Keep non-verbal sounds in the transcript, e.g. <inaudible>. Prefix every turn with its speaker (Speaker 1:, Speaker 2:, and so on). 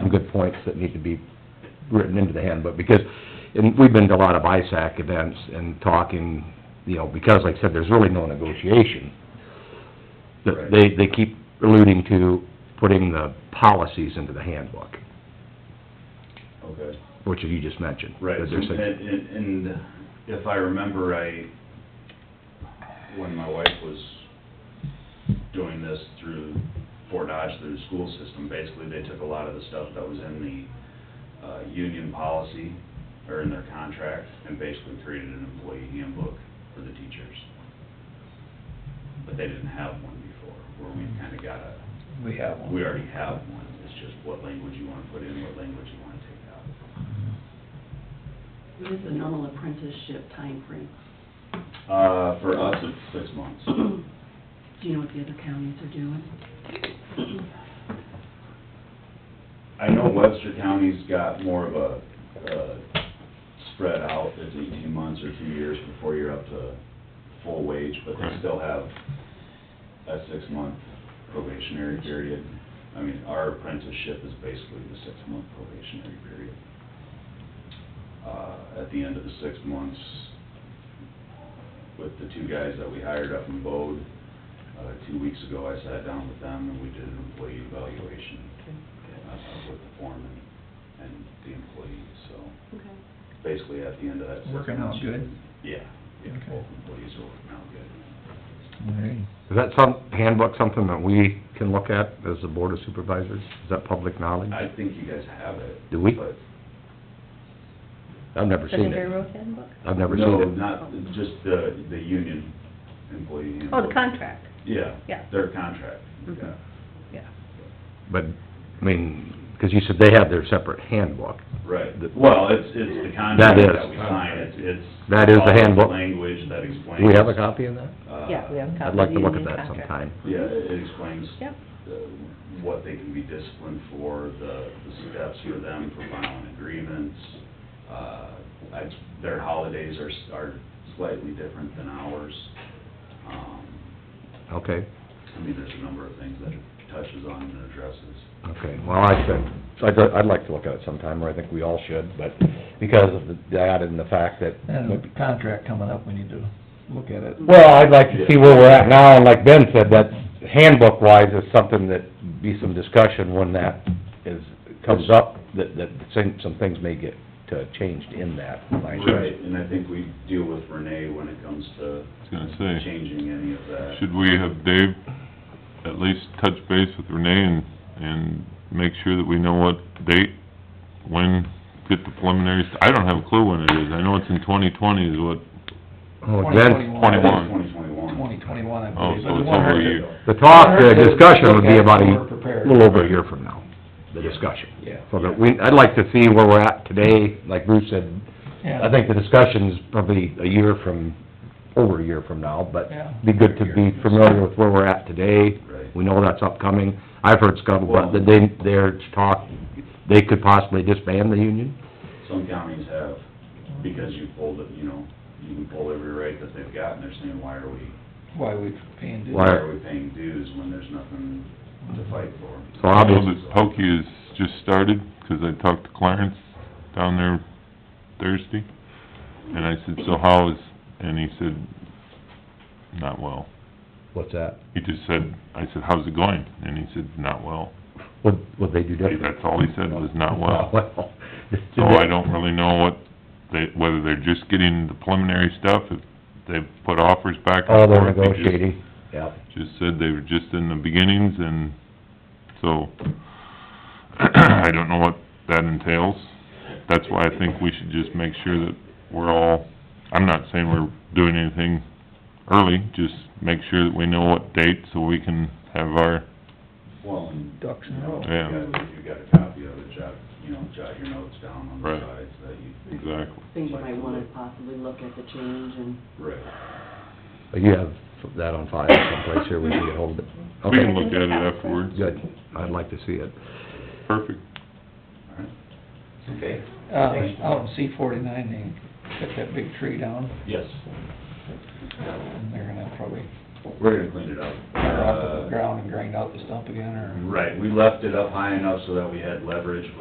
Speaker 1: some good points that need to be written into the handbook, because, and we've been to a lot of ISAC events and talking, you know, because like I said, there's really no negotiation. That They, they keep alluding to putting the policies into the handbook,
Speaker 2: Okay.
Speaker 1: which you just mentioned.
Speaker 2: Right,
Speaker 1: That
Speaker 2: and,
Speaker 1: there's a-
Speaker 2: and and if I remember, I, when my wife was doing this through Fort Dodge, through the school system, basically, they took a lot of the stuff that was in the, uh, union policy, or in their contract, and basically created an employee handbook for the teachers. But they didn't have one before, where we kinda got a,
Speaker 3: We have one.
Speaker 2: we already have one, it's just what language you wanna put in, what language you wanna take out.
Speaker 4: What is the normal apprenticeship timeframe? <clears throat>
Speaker 2: Uh, for us, it's six months.
Speaker 4: Do you know what the other counties are doing?
Speaker 2: I know Webster County's got more of a, uh, spread out, it's eighteen months or two years before you're up to full wage, but they
Speaker 1: Right.
Speaker 2: still have a six-month probationary period. I mean, our apprenticeship is basically the six-month probationary period. Uh, at the end of the six months, with the two guys that we hired up in Bode, uh, two weeks ago, I sat down with them and we did an employee evaluation uh, with the foreman and the employee, so
Speaker 4: Okay.
Speaker 2: basically at the end of that six
Speaker 3: Working out
Speaker 2: months-
Speaker 3: good.
Speaker 2: Yeah, yeah,
Speaker 3: Okay.
Speaker 2: both employees are working out good.
Speaker 1: Is that some, handbook something that we can look at as the Board of Supervisors? Is that public knowledge?
Speaker 2: I think you guys have it.
Speaker 1: Do we?
Speaker 2: but-
Speaker 1: I've never seen
Speaker 5: Secondary
Speaker 1: it.
Speaker 5: road handbook?
Speaker 1: I've never
Speaker 2: No,
Speaker 1: seen it.
Speaker 2: not, just the, the union employee
Speaker 5: Oh, the
Speaker 2: handbook.
Speaker 5: contract,
Speaker 2: Yeah.
Speaker 5: Yeah.
Speaker 2: Their contract,
Speaker 5: Mhm.
Speaker 2: yeah,
Speaker 5: yeah.
Speaker 1: But, I mean, 'cause you said they have their separate handbook.
Speaker 2: right.
Speaker 1: The-
Speaker 2: Well, it's, it's the contract
Speaker 1: is.
Speaker 2: that we sign, it's, it's.
Speaker 1: That is the
Speaker 2: all
Speaker 1: handbook.
Speaker 2: Language that explains.
Speaker 1: Do we have a copy of that?
Speaker 2: uh,
Speaker 5: Yeah, we have a copy
Speaker 1: I'd
Speaker 5: of
Speaker 1: like
Speaker 5: the
Speaker 1: to look at
Speaker 5: union
Speaker 1: that
Speaker 5: contract.
Speaker 1: sometime.
Speaker 2: Yeah, it explains.
Speaker 5: Yep.
Speaker 2: uh, What they can be disciplined for, the, the steps for them for filing agreements. Uh, I, their holidays are, s- are slightly different than ours. Um,
Speaker 1: Okay,
Speaker 2: I mean, there's a number of things that it touches on and addresses.
Speaker 1: okay. Well, I should, I'd, I'd like to look at it sometime, or I think we all should, but because of the- that and the fact that...
Speaker 3: And with the contract coming up, we need to look at it.
Speaker 1: Well, I'd like to see where we're at now, and like Ben said, that handbook wise is something that be some discussion when that is, comes up, that, that some, some things may get uh, changed in that language.
Speaker 2: Right, and I think we deal with Renee when it comes to
Speaker 6: was gonna say,
Speaker 2: changing any of that.
Speaker 6: should we have Dave at least touch base with Renee and, and make sure that we know what date, when, get the preliminaries? I don't have a clue when it is, I know it's in twenty twenty is what,
Speaker 1: Well, Oh, Ben,
Speaker 6: Twenty-one.
Speaker 2: Twenty twenty-one.
Speaker 3: Twenty twenty-one, I
Speaker 6: oh,
Speaker 3: believe.
Speaker 6: so it's over a year.
Speaker 1: the talk, the discussion would be about
Speaker 3: We're
Speaker 1: a
Speaker 3: prepared.
Speaker 1: little over a year from now, the discussion.
Speaker 3: Yeah.
Speaker 1: So that we, I'd like to see where we're at today, like Bruce said,
Speaker 3: Yeah.
Speaker 1: I think the discussion's probably a year from, over a year from now, but
Speaker 3: Yeah.
Speaker 1: be good to be familiar with where we're at today.
Speaker 2: Right.
Speaker 1: We know that's upcoming. I've heard scuttlebutt that they, they're talk, they could possibly disband the union.
Speaker 2: Some counties have, because you pulled it, you know, you can pull every rate that they've got, and they're saying, why are we
Speaker 3: Why we paying dues.
Speaker 1: Why-
Speaker 2: Why are we paying dues when there's nothing to fight for?
Speaker 1: So
Speaker 6: I know
Speaker 1: obviously,
Speaker 6: that Pokey has just started, 'cause I talked to Clarence down there Thursday, and I said, so how is, and he said, not well.
Speaker 1: what's that?
Speaker 6: He just said, I said, how's it going? And he said, not well.
Speaker 1: What, what they do different?
Speaker 6: That's all he said was, not well.
Speaker 1: Well,
Speaker 6: <laughs> So
Speaker 1: <laughs>
Speaker 6: I don't really know what they, whether they're just getting the preliminary stuff, if they've put offers back
Speaker 1: All
Speaker 6: and forth.
Speaker 1: Oh, they're
Speaker 6: They just-
Speaker 1: negotiating, yeah.
Speaker 6: Just said they were just in the beginnings and so, <clears throat> I don't know what that entails. That's why I think we should just make sure that we're all, I'm not saying we're doing anything early, just make sure that we know what date so we can have our,
Speaker 2: Well, and,
Speaker 3: Ducks in
Speaker 2: you
Speaker 3: a
Speaker 2: know,
Speaker 3: row.
Speaker 2: if you
Speaker 6: Yeah.
Speaker 2: got- if you got a copy of it, jot, you know, jot your notes down on the
Speaker 6: Right.
Speaker 2: sides that you think.
Speaker 6: exactly.
Speaker 4: Think you might wanna possibly look at the change and
Speaker 2: Right.
Speaker 1: But you have that on file someplace here, we can get hold of it.
Speaker 6: We can
Speaker 1: Okay,
Speaker 6: look at it afterwards.
Speaker 1: good. I'd like to see it.
Speaker 6: Perfect.
Speaker 2: Okay.
Speaker 3: Uh, out in C forty-nine, they cut that big tree down,
Speaker 2: Yes.
Speaker 3: and they're gonna probably
Speaker 2: We're gonna clean it up.
Speaker 3: Or off of the
Speaker 2: Uh,
Speaker 3: ground and grind out the stump again, or?
Speaker 2: Right, we left it up high enough so that we had leverage